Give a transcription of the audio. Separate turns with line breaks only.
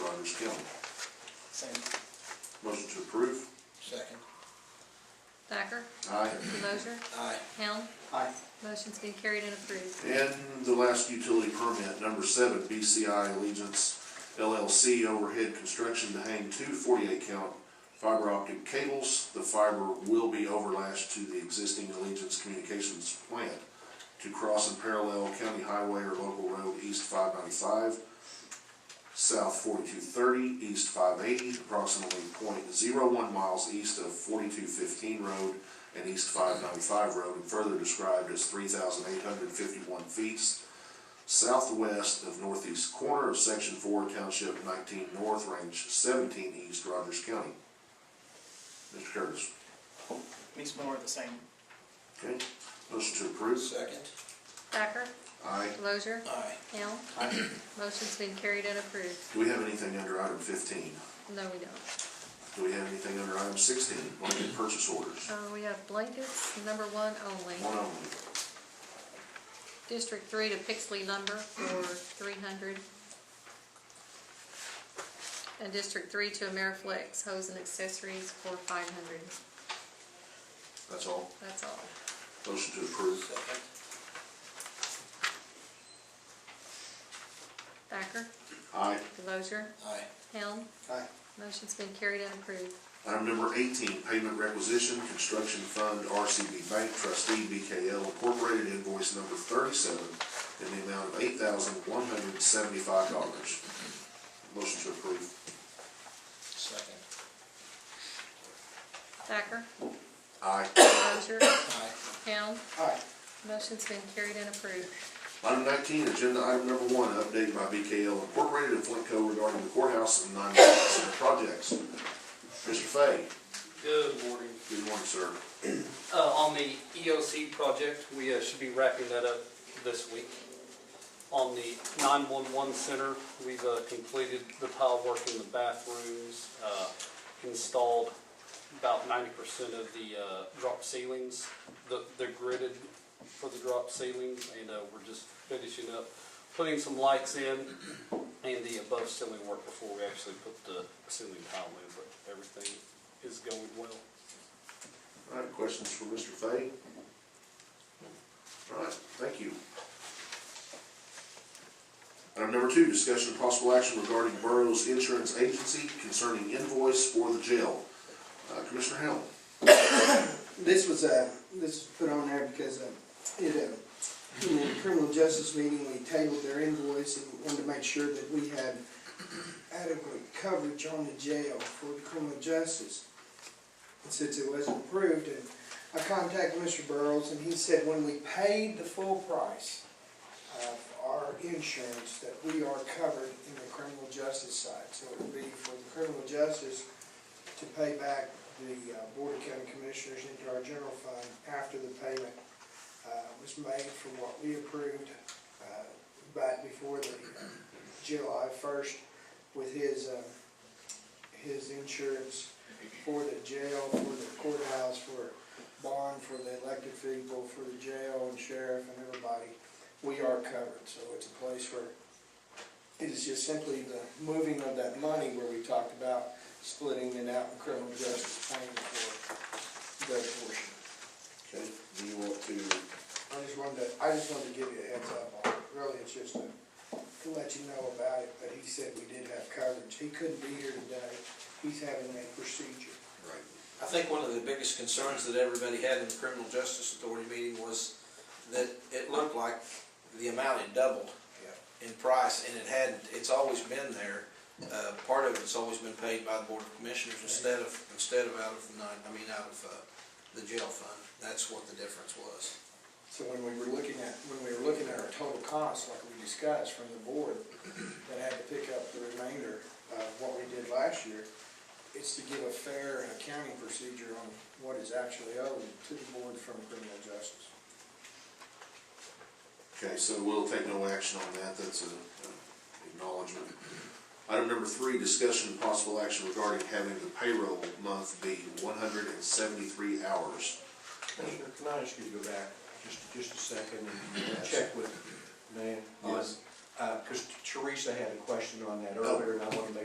Same.
Motion to approve?
Second.
Thacker,
Aye.
Delozer,
Aye.
Helm,
Aye.
motion's been carried and approved.
And the last utility permit, number seven, BCI Allegiance LLC overhead construction to hang two 48 count fiber optic cables. The fiber will be overlashed to the existing Allegiance Communications plant to cross and parallel county highway or local road east five ninety-five, south forty-two thirty, east five eighty, approximately 0.01 miles east of forty-two fifteen road and east five ninety-five road, and further described as three thousand eight hundred fifty-one feet southwest of northeast corner of section four, township nineteen north, range seventeen east, Rogers County. Mr. Curtis,
Least more of the same.
okay, motion to approve?
Second.
Thacker,
Aye.
Delozer,
Aye.
Helm,
Aye.
motion's been carried and approved.
Do we have anything under item fifteen?
No, we don't.
Do we have anything under item sixteen, blanket purchase orders?
Uh, we have blankets, number one only.
One only.
District three to Pixley Lumber for three hundred. And District three to Ameriflex Hose and Accessories for five hundred.
That's all.
That's all.
Motion to approve?
Second.
Thacker,
Aye.
Delozer,
Aye.
Helm,
Aye.
motion's been carried and approved.
Item number eighteen, payment requisition, construction fund, RCB Bank trustee, BKL Incorporated, invoice number thirty-seven, in the amount of eight thousand one hundred seventy-five dollars. Motion to approve.
Second.
Thacker,
Aye.
Delozer,
Aye.
Helm,
Aye.
motion's been carried and approved.
Item nineteen, agenda item number one, update by BKL Incorporated and Flintco regarding the courthouse and non-government center projects. Mr. Fay,
Good morning.
good morning, sir.
Uh, on the EOC project, we uh, should be wrapping that up this week. On the 911 center, we've uh, completed the tile work in the bathrooms, uh, installed about 90% of the uh, drop ceilings. The- They're gridded for the drop ceilings, and uh, we're just finishing up, putting some lights in and the above ceiling work before we actually put the ceiling tile in, but everything is going well.
All right, questions for Mr. Fay? All right, thank you. Item number two, discussion of possible action regarding Burroughs Insurance Agency concerning invoice for the jail. Uh, Commissioner Hamlin?
This was, uh, this was put on there because, uh, it, uh, in the criminal justice meeting, we tabled their invoice and wanted to make sure that we had adequate coverage on the jail for the criminal justice. And since it wasn't approved, and I contacted Mr. Burrows, and he said when we paid the full price of our insurance, that we are covered in the criminal justice side. So it would be for the criminal justice to pay back the uh, Board of County Commissioners into our general fund after the payment uh, was made from what we approved uh, back before the uh, July first with his, uh, his insurance for the jail, for the courthouse, for bond, for the elected people, for the jail and sheriff and everybody. We are covered, so it's a place where it is just simply the moving of that money where we talked about splitting it out in criminal justice paying for the portion.
Okay, do you want to,
I just wanted to, I just wanted to give you a heads up on it, really, it's just to, to let you know about it, but he said we did have coverage, he couldn't be here today, he's having a procedure.
right,
I think one of the biggest concerns that everybody had in the criminal justice authority meeting was that it looked like the amount had doubled in price, and it hadn't. It's always been there. Uh, part of it's always been paid by the board of commissioners instead of, instead of out of the, nine- I mean, out of, uh, the jail fund. That's what the difference was.
So when we were looking at, when we were looking at our total costs, like we discussed from the board, that had to pick up the remainder of what we did last year, it's to give a fair accounting procedure on what is actually owed to the board from criminal justice.
okay, so we'll take no action on that, that's a a acknowledgement. Item number three, discussion and possible action regarding having the payroll month be one hundred and seventy-three hours.
Commissioner, can I ask you to go back just, just a second and
Yes.
check with Nan? on-
Yes.
Uh, because Teresa had a question on that earlier, and I want to make